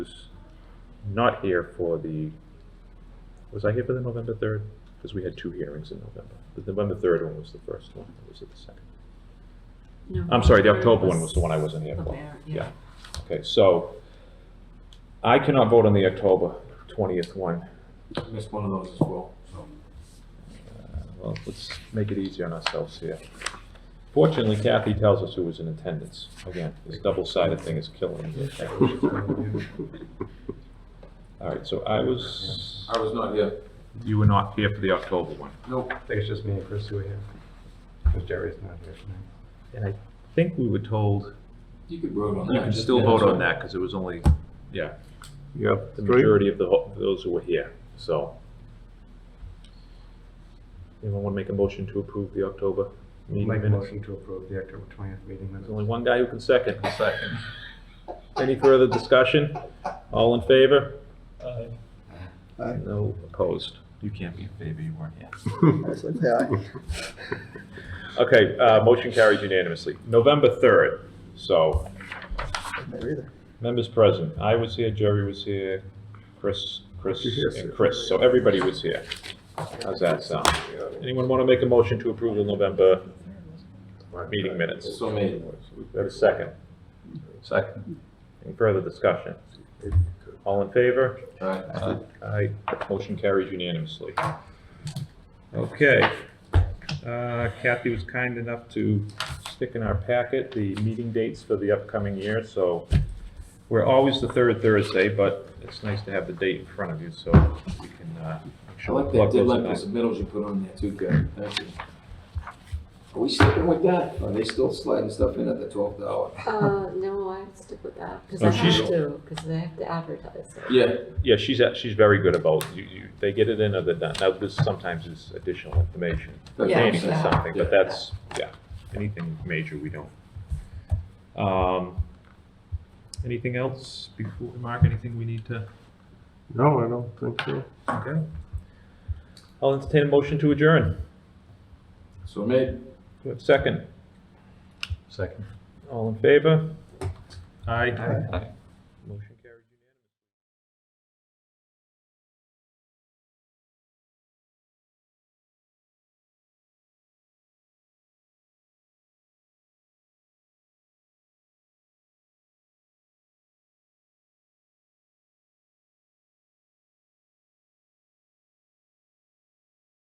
not here for the, was I here for the November 3rd? Because we had two hearings in November. The November 3rd one was the first one, or was it the second? No, I'm sorry, the third October one was the one I wasn't here for. Bavaria, yeah. Yeah. Okay, so I cannot vote on the October 20th one. Missed one of those as well, so. Uh, Well, let's make it easy on ourselves here. Fortunately, Kathy tells us who was in attendance. Again, this double-sided thing is killing me. All right, so I was, I was not here. you were not here for the October one. Nope. I think it's just me and Chris who are here. Because Jerry's not here tonight. And I think we were told You could vote on that. you can still vote on that because it was only, yeah, You have the three? majority of the, ho- those who were here, so. Anyone want to make a motion to approve the October meeting Make a minutes? motion to approve the October 20th meeting There's minutes. only one guy who can second. Second. Any further discussion? All in favor? Aye. No opposed. You can't be in favor, you weren't here. I said, aye. Okay, uh, motion carries unanimously. November 3rd, so, There either. members present, I was here, Jerry was here, Chris, Chris, You're here, and sir. Chris, so everybody was here. How's that sound? Anyone want to make a motion to approve the November meeting minutes? So made. We have a second. Second. Any further discussion? All in favor? Alright. Aye. Motion carries unanimously. Okay. Uh, Kathy was kind enough to stick in our packet the meeting dates for the upcoming year, so we're always the third Thursday, but it's nice to have the date in front of you, so we can, uh, make I sure we like plug that deadline for those in. submittals you put on there too, Kevin, thank you. Are we sticking with that? Are they still sliding stuff in at the twelfth hour? Uh, no, I stick with that, because Oh, I she's- have to, because I have to advertise it. Yeah, Yeah, she's, at- she's very good about, you, you, they get it in or they're not. Now, this sometimes is additional information. that's what I'm pertaining to Yeah. saying. something, but that's, yeah, anything major, we don't. Um, Anything else before, Mark, anything we need to, No, I don't think so. okay? I'll entertain a motion to adjourn. So made. Do I have a Second, Second. all in favor? Aye. Motion